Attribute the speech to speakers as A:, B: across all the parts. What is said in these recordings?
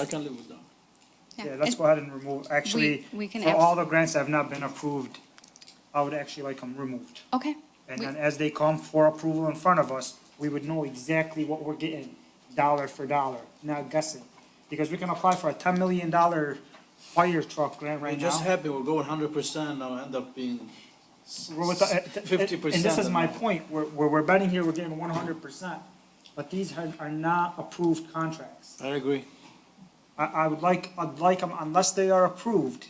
A: I can live with that.
B: Yeah, let's go ahead and remove, actually,
C: we can
B: for
C: abs-
B: all the grants that have not been approved, I would actually like them removed.
C: Okay,
B: And
C: We-
B: then as they come for approval in front of us, we would know exactly what we're getting, dollar for dollar, not guessing. Because we can apply for a ten million dollar fire truck grant
A: We're
B: right
A: just
B: now.
A: happy we're going hundred percent, I'll end up being
B: We're with the- uh,
A: fifty percent.
B: And this is my point, we're, we're, we're betting here, we're getting one hundred percent, but these are, are not approved contracts.
A: I agree.
B: I, I would like, I'd like them unless they are approved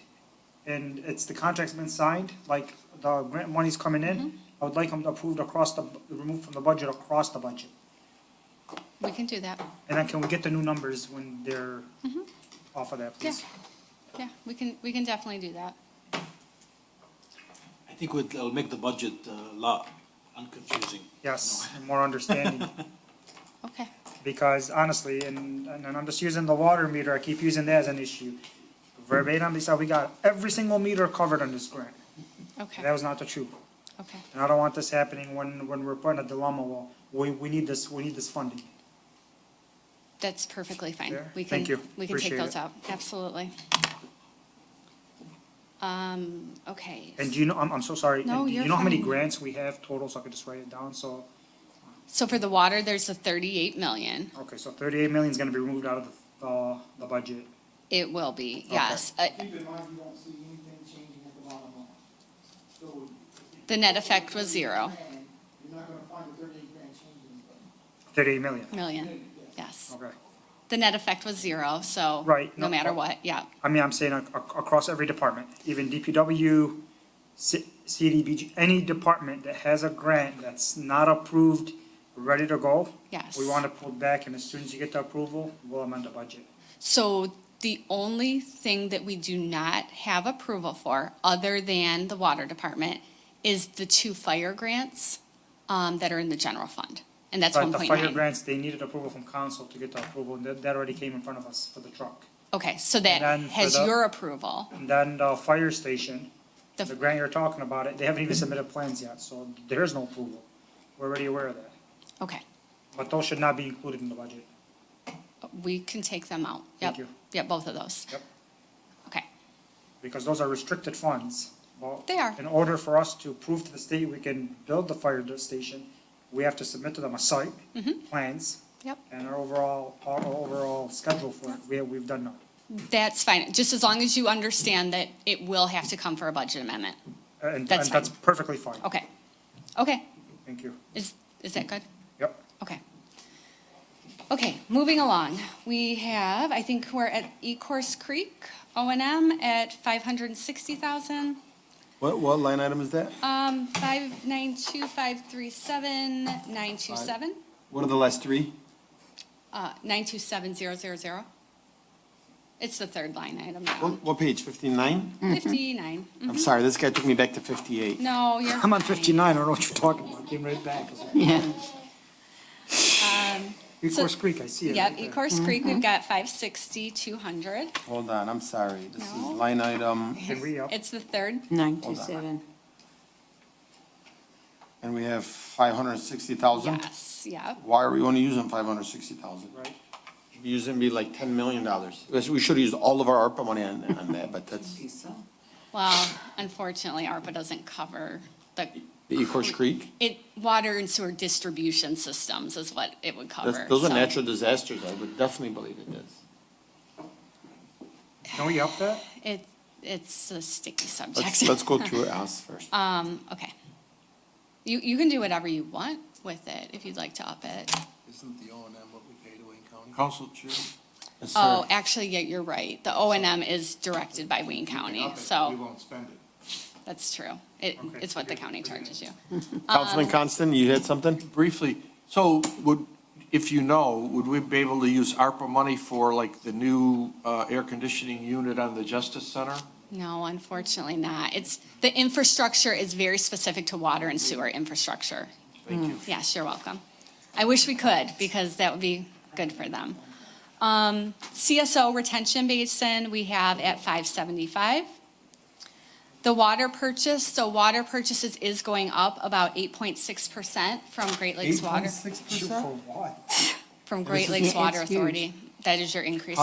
B: and it's, the contract's been signed, like the grant money's coming in,
C: Mm-hmm.
B: I would like them approved across the, removed from the budget, across the budget.
C: we can do that.
B: And then can we get the new numbers when they're off of that, please?
C: Mm-hmm. Yeah, we can, we can definitely do that.
A: I think we'll, it'll make the budget uh, a lot unconfusing.
B: Yes, and more understanding,
C: Okay,
B: because honestly, and, and I'm just using the water meter, I keep using that as an issue. Verbatim, they said we got every single meter covered on this grant, and that
C: okay,
B: was not the truth.
C: okay.
B: And I don't want this happening when, when we're put in a dilemma, well, we, we need this, we need this funding.
C: That's perfectly fine.
B: There?
C: We can,
B: Thank you.
C: we can take
B: Appreciate
C: those
B: it.
C: out, absolutely. Um, okay,
B: And do you know, I'm, I'm so sorry,
C: No,
B: and do
C: you're
B: you know how many
C: fine.
B: grants we have total, so I could just write it down, so,
C: so for the water, there's the thirty-eight million.
B: okay, so thirty-eight million is gonna be removed out of the, uh, the budget.
C: It will be, yes. Uh,
D: Keep in mind, you don't see anything changing at the bottom line. So.
C: The net effect was zero
D: You're not gonna find a thirty-eight grand change in it.
B: Thirty-eight million,
C: million, yes.
B: okay.
C: The net effect was zero, so.
B: Right,
C: No
B: no,
C: matter
B: uh,
C: what, yeah,
B: I mean, I'm saying ac- ac- across every department, even DPW, C- CDBG, any department that has a grant that's not approved, ready to go.
C: yes.
B: We want to pull back and as soon as you get the approval, we'll amend the budget.
C: So the only thing that we do not have approval for, other than the water department, is the two fire grants um, that are in the general fund, and that's one
B: But the
C: point
B: fire
C: nine.
B: grants, they needed approval from council to get the approval, and that, that already came in front of us for the truck.
C: Okay, so that
B: And then for
C: has
B: the-
C: your approval.
B: And then the fire station,
C: The- Mm-hmm.
B: the grant you're talking about, it, they haven't even submitted plans yet, so there is no approval. We're already aware of that,
C: Okay,
B: but those should not be included in the budget.
C: we can take them out. Yep,
B: Thank you.
C: yep, both of those.
B: Yep.
C: Okay,
B: because those are restricted funds. Well,
C: They are.
B: In order for us to prove to the state we can build the fire station, we have to submit to them a site, plans,
C: Mm-hmm. yep,
B: and our overall, our overall schedule for it. We, we've done Uh, none.
C: that's fine, just as long as you understand that it will have to come for a budget amendment.
B: And,
C: That's
B: and that's
C: fine. Oh.
B: perfectly fine.
C: Okay, okay,
B: Thank you.
C: is, is that good?
B: Yep.
C: Okay. Okay, moving along. We have, I think we're at Ecorse Creek, O and M at five hundred and sixty thousand.
E: What, what line item is that?
C: Um, five nine two five three seven nine two seven,
E: What are the last three?
C: uh, nine two seven zero zero zero. It's the third line item now,
E: What, what page, fifty-nine?
C: fifty-nine.
E: I'm sorry, this guy took me back to fifty-eight.
C: No, you're.
B: I'm on
C: fine.
B: fifty-nine, I don't know what you're talking about, came right back. Ecorse Creek, I see it
C: Yep,
B: right there.
C: Ecorse Creek, we've got five sixty, two hundred.
E: Hold on, I'm sorry, this is
C: No.
E: line item,
B: Can we up?
C: It's the third.
F: Nine two seven.
E: and we have five hundred and sixty thousand?
C: Yes, yep.
E: Why are we only using five hundred and sixty thousand?
B: Right.
E: Should be using be like ten million dollars. We should use all of our ARPA money on, on that, but that's
C: Well, unfortunately, ARPA doesn't cover the,
E: the Ecorse Creek.
C: it, water and sewer distribution systems is what it would cover.
E: That's, those are
C: so-
E: natural disasters, I would definitely believe it is.
B: Can we up that?
C: It, it's a sticky
E: Let's,
C: subject.
E: let's go through us first.
C: Um, okay. You, you can do whatever you want with it, if you'd like to up it.
G: Isn't the O and M what we pay to Wayne County?
A: Council chair,
E: Yes, sir.
C: Oh, actually, yeah, you're right. The O and M is directed by Wayne County,
G: Up it, We
C: so
G: won't spend it.
C: that's true. It, it's what the county charges you. um,
E: Councilman Constant, you had something?
G: Briefly, so would, if you know, would we be able to use ARPA money for like the new uh, air conditioning unit on the Justice Center?
C: No, unfortunately not. It's, the infrastructure is very specific to water and sewer infrastructure. Mm.
G: Thank you.
C: Yes, you're welcome. I wish we could, because that would be good for them. Um, CSO retention basin, we have at five seventy-five. The water purchase, so water purchases is going up about eight point six percent from Great Lakes Water,
E: Six
B: Shoot, for what?
C: from Great Lakes
F: yeah,
C: Water
F: it's huge.
C: Authority. That is your increase